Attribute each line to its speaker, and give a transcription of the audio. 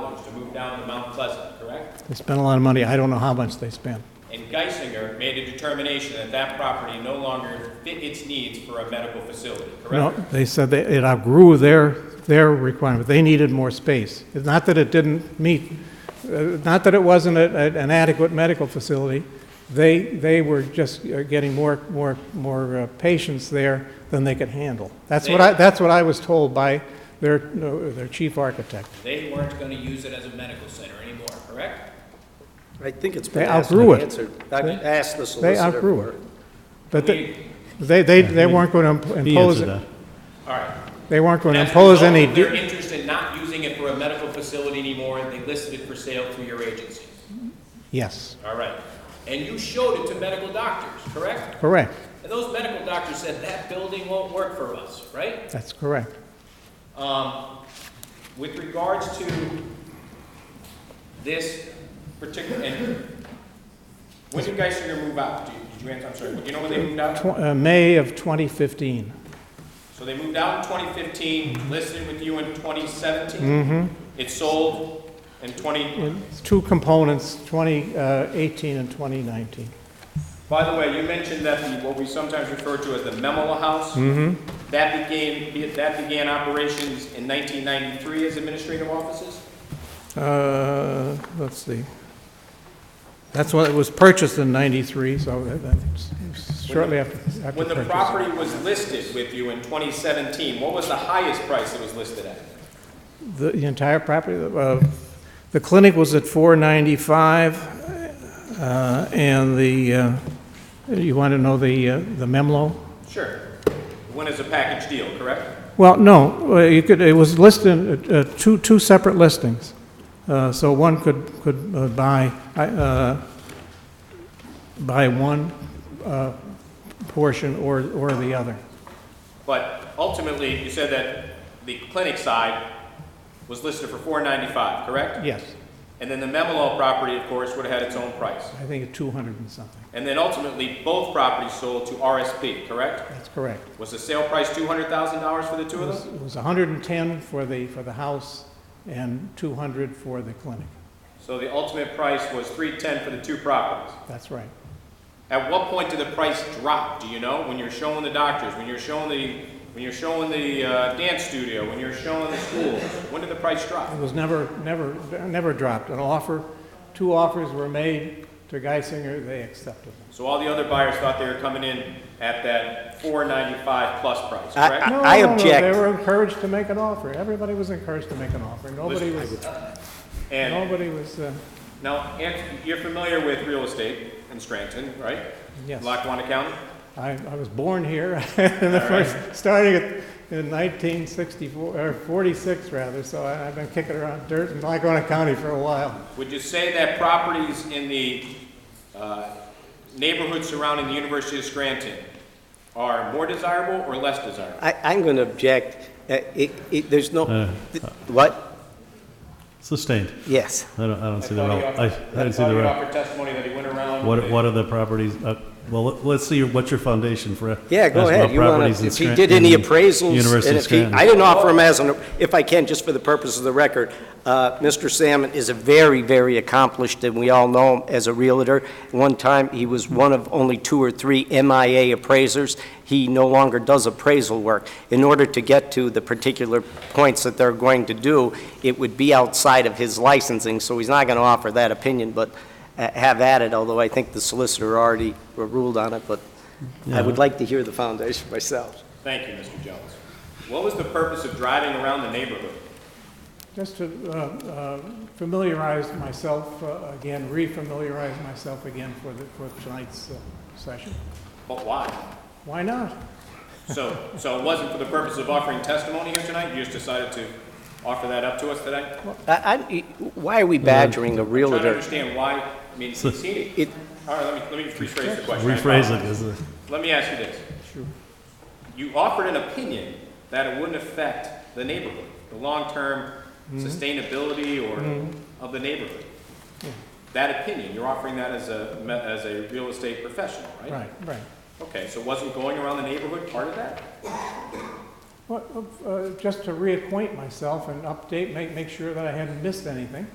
Speaker 1: down to Mount Pleasant, correct?
Speaker 2: They spent a lot of money. I don't know how much they spent.
Speaker 1: And Geisinger made a determination that that property no longer fit its needs for a medical facility,
Speaker 2: No,
Speaker 1: correct?
Speaker 2: they said that it outgrew their, their requirement. They needed more space. It's not that it didn't meet, uh, not that it wasn't a- a- an adequate medical facility. They, they were just uh, getting more, more, more uh, patients there than they could handle. That's what I, that's what I was told by their, uh, their chief architect.
Speaker 1: They weren't gonna use it as a medical center anymore, correct?
Speaker 3: I think it's
Speaker 2: They
Speaker 3: been asked
Speaker 2: outgrew
Speaker 3: and
Speaker 2: it.
Speaker 3: answered. I've
Speaker 2: They-
Speaker 3: asked the solicitor.
Speaker 2: They outgrew
Speaker 3: for
Speaker 2: it. But they, they, they they weren't going to
Speaker 4: He
Speaker 2: impose,
Speaker 4: answered
Speaker 2: it.
Speaker 4: that.
Speaker 1: All right.
Speaker 2: they weren't going to
Speaker 1: As a
Speaker 2: impose
Speaker 1: result
Speaker 2: any.
Speaker 1: of
Speaker 2: de-
Speaker 1: Their interest in not using it for a medical facility anymore, and they listed it for sale through your agency,
Speaker 2: Yes,
Speaker 1: all right? And you showed it to medical doctors, correct?
Speaker 2: correct.
Speaker 1: And those medical doctors said, that building won't work for us, right?
Speaker 2: That's correct.
Speaker 1: Um, With regards to this particular, and when did Geisinger move out? Do you- Did you answer, I'm sorry, do you know when they moved out?
Speaker 2: Tw- uh, May of 2015.
Speaker 1: So they moved out in 2015, listed with you in 2017. It sold in 20,
Speaker 2: It's two components, 2018 and 2019.
Speaker 1: by the way, you mentioned that the, what we sometimes refer to as the Memela House. That began, that began operations in 1993 as administrative offices?
Speaker 2: Uh, Let's see. That's what, it was purchased in 93, so that- that's shortly after after
Speaker 1: When the
Speaker 2: purchase.
Speaker 1: property was listed with you in 2017, what was the highest price it was listed at?
Speaker 2: The the entire property, uh, the clinic was at 495, uh, and the, uh, you want to know the uh, the Memlo?
Speaker 1: Sure. When is a package deal, correct?
Speaker 2: Well, no, uh, you could, it was listed, uh, uh, two, two separate listings. Uh, So one could, could uh, buy, I, uh, buy one uh, portion or, or the other.
Speaker 1: But ultimately, you said that the clinic side was listed for 495, correct?
Speaker 2: Yes,
Speaker 1: And then the Memelo property, of course, would have had its own price.
Speaker 2: I think it's 200 and something.
Speaker 1: And then ultimately, both properties sold to RSP, correct?
Speaker 2: That's correct.
Speaker 1: Was the sale price $200,000 for the two
Speaker 2: It
Speaker 1: of
Speaker 2: was
Speaker 1: them?
Speaker 2: it was 110 for the, for the house and 200 for the clinic.
Speaker 1: So the ultimate price was 310 for the two properties.
Speaker 2: That's right.
Speaker 1: At what point did the price drop? Do you know? When you're showing the doctors, when you're showing the, when you're showing the uh, dance studio, when you're showing the school, when did the price drop?
Speaker 2: It was never, never, never dropped. An offer, two offers were made to Geisinger, they accepted them.
Speaker 1: So all the other buyers thought they were coming in at that 495 plus price,
Speaker 3: I-
Speaker 1: correct?
Speaker 3: I-
Speaker 2: No, no, no,
Speaker 3: object.
Speaker 2: They were encouraged to make an offer. Everybody was encouraged to make an offer. Nobody was,
Speaker 1: and
Speaker 2: nobody was, uh,
Speaker 1: now, Anthony, you're familiar with real estate in Scranton, right?
Speaker 2: Yes.
Speaker 1: Lackawanna County.
Speaker 2: I, I was born here in the first, starting at- in 1964, or 46 rather, so I- I've been kicking around dirt in Lackawanna County for a while.
Speaker 1: Would you say that properties in the uh, neighborhood surrounding the University of Scranton are more desirable or less desirable?
Speaker 3: I, I'm going to object. Uh, It, it, there's no,
Speaker 4: Uh,
Speaker 3: th- what?
Speaker 4: Sustained.
Speaker 3: Yes.
Speaker 4: I don't, I don't see the,
Speaker 1: thought
Speaker 4: rel-
Speaker 1: he
Speaker 4: I, I
Speaker 1: offered-
Speaker 4: didn't see
Speaker 1: thought
Speaker 4: the,
Speaker 1: he
Speaker 4: rel-
Speaker 1: offered testimony that he went around.
Speaker 4: what,
Speaker 1: with-
Speaker 4: what are the properties, uh, well, let- let's see, what's your foundation for?
Speaker 3: Yeah, go
Speaker 4: asking
Speaker 3: ahead.
Speaker 4: about
Speaker 3: You wanna-
Speaker 4: properties in
Speaker 3: If he
Speaker 4: Scran-
Speaker 3: did any
Speaker 4: in
Speaker 3: appraisals,
Speaker 4: University
Speaker 3: and
Speaker 4: of
Speaker 3: if he,
Speaker 4: Scranton.
Speaker 3: I didn't offer him as an, if I can, just for the purpose of the record, uh, Mr. Salmon is a very, very accomplished, and we all know him as a realtor. One time, he was one of only two or three MIA appraisers. He no longer does appraisal work. In order to get to the particular points that they're going to do, it would be outside of his licensing, so he's not going to offer that opinion, but uh, have at it, although I think the solicitor already ruled on it, but I would like to hear the foundation myself.
Speaker 1: Thank you, Mr. Jones. What was the purpose of driving around the neighborhood?
Speaker 2: Just to uh, uh, familiarize myself uh, again, re-familiarize myself again for the, for tonight's uh, session.
Speaker 1: But why?
Speaker 2: Why not?
Speaker 1: So, so it wasn't for the purpose of offering testimony here tonight? You just decided to offer that up to us today? I'm
Speaker 3: I- I- Why are we badgering a
Speaker 1: Trying to
Speaker 3: realtor?
Speaker 1: understand why, I mean,
Speaker 4: So-
Speaker 1: see it.
Speaker 3: It-
Speaker 1: All right, let me, let me rephrase the question. I
Speaker 4: Rephrase it, uh,
Speaker 1: apologize.
Speaker 4: is it?
Speaker 1: Let me ask you this.
Speaker 2: Sure.
Speaker 1: You offered an opinion that it wouldn't affect the neighborhood, the long-term sustainability or of the neighborhood. That opinion, you're offering that as a, me- as a real estate professional, right?
Speaker 2: Right, right.
Speaker 1: Okay, so wasn't going around the neighborhood part of that?
Speaker 2: Well, uh, just to reacquaint myself and update, make, make sure that I hadn't missed anything.